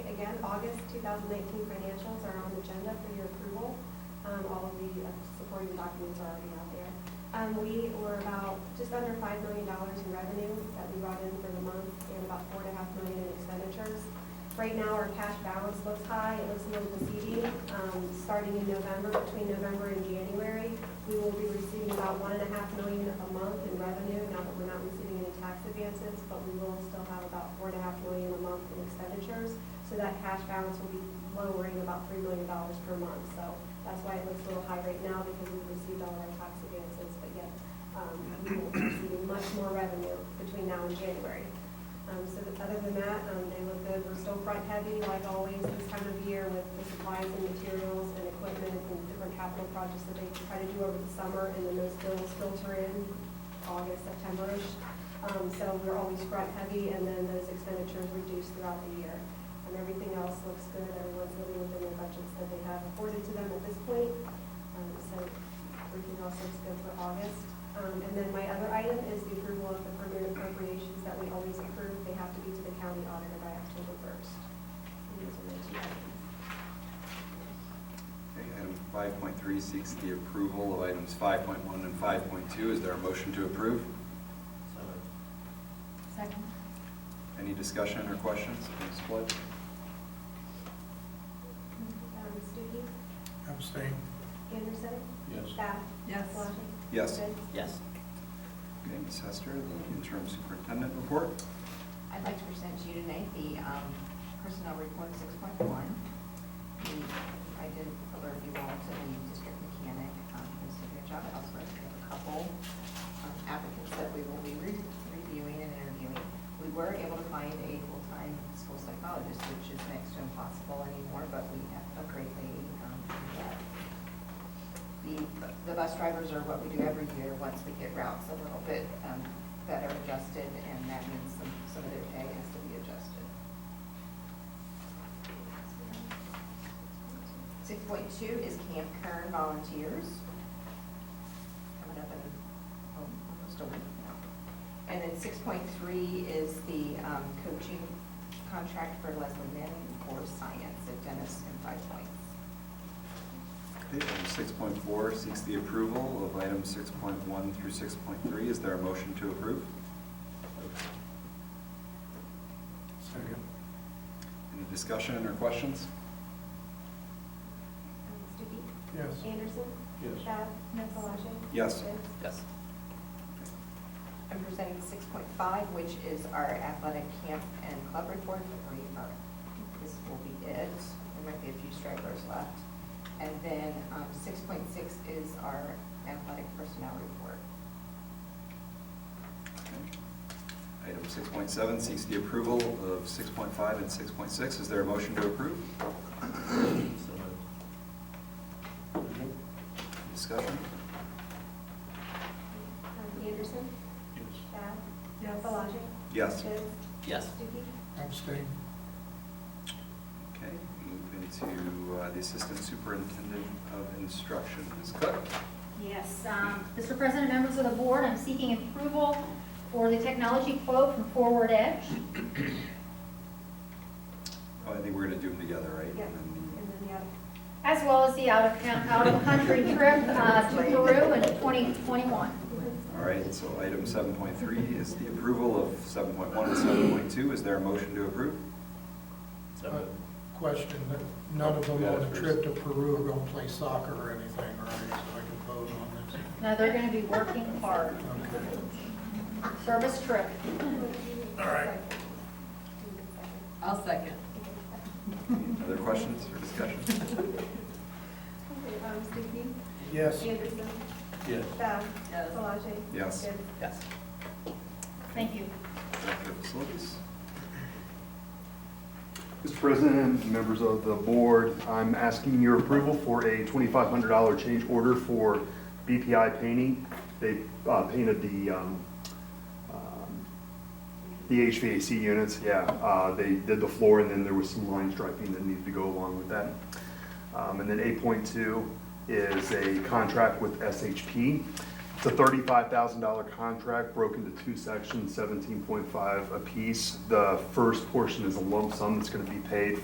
again, August 2019 financials are on the agenda for your approval. Um, All of the uh, supporting documents are already out there. Um, We were about just under $5 million in revenue that we brought in for the month and about $4.5 million in expenditures. Right now, our cash balance looks high, it looks a little deceiving. Um, Starting in November, between November and January, we will be receiving about one and a half million a month in revenue, now that we're not receiving any tax advances, but we will still have about four and a half million a month in expenditures. So that cash balance will be lowering about three million dollars per month. So that's why it looks a little high right now, because we've received all our tax advances, but yet um, we will be receiving much more revenue between now and January. Um, So that- other than that, um, they look good. We're still front heavy like always this time of year with the supplies and materials and equipment and different capital projects that they try to do over the summer and then those bills filter in August, September-ish. Um, So we're always front heavy and then those expenditures reduce throughout the year. And everything else looks good. Everyone's living within their budgets that they have afforded to them at this point. Um, So everything else looks good for August. Um, And then my other item is the approval of the permanent appropriations that we always approve. They have to be to the county auditor by October 1st. And those are my two items. Okay, Item 5.3 seeks the approval of items 5.1 and 5.2. Is there a motion to approve? Second. Any discussion or questions? Ms. Flood? Um, Stuckey? Abstain. Anderson? Yes. Bath? Yes. Palage? Yes. Good. Yes. Okay, Ms. Hester, the interim superintendent report. I'd like to present to you tonight the um, personnel report 6.1. The- I did alert you all to the district mechanic um, who's doing their job elsewhere. We have a couple um, applicants that we will be re- reviewing and interviewing. We were able to find a full-time school psychologist, which is next to impossible anymore, but we have a great lady um, that the, the bus drivers are what we do every year, once we get routes a little bit um, better adjusted, and that means some, some of their pay has to be adjusted. Six point two is Camp Kern volunteers, coming up in um, almost a week now. And then six point three is the um, coaching contract for Leslie Manning for science at Dennis and Five Points. Okay, Item 6.4 seeks the approval of items 6.1 through 6.3. Is there a motion to approve? Second. Any discussion or questions? Um, Stuckey? Yes. Anderson? Yes. Bath? Yes. Palage? Yes. Good. Yes. I'm presenting six point five, which is our athletic camp and club report. We are, this will be it. There might be a few stragglers left. And then, um, six point six is our athletic personnel report. Okay. Item 6.7 seeks the approval of 6.5 and 6.6. Is there a motion to approve? Discussion? Um, Anderson? Yes. Bath? Palage? Yes. Good. Yes. Stuckey? Abstain. Okay, move into uh, the Assistant Superintendent of Instruction, Ms. Cook. Yes, um, Mr. President, members of the board, I'm seeking approval for the technology quote from Forward Edge. Oh, I think we're going to do them together, right? Yeah. And then And then the other. As well as the out of, coun- out of country trip uh, to Peru in 2021. the- All right, so item 7.3 is the approval of 7.1 and 7.2. Is there a motion to approve? Uh, Question, none of them on a trip to Peru are going to play soccer or anything, right? So I can vote on Now, they're going to be working hard. this. Okay. Service trip. All right. I'll second. Other questions or discussion? Okay, um, Stuckey? Yes. Anderson? Yes. Bath? Yes. Palage? Yes. Good. Yes. Thank you. Director of Facilities? Mr. President, members of the board, I'm asking your approval for a $2,500 change order for BPI painting. They uh, painted the, um, um, the HVAC units, yeah. Uh, They did the floor, and then there was some line striping that needed to go along with that. Um, And then 8.2 is a contract with SHP. It's a $35,000 contract broken into two sections, 17.5 apiece. The first portion is a lump sum that's going to be paid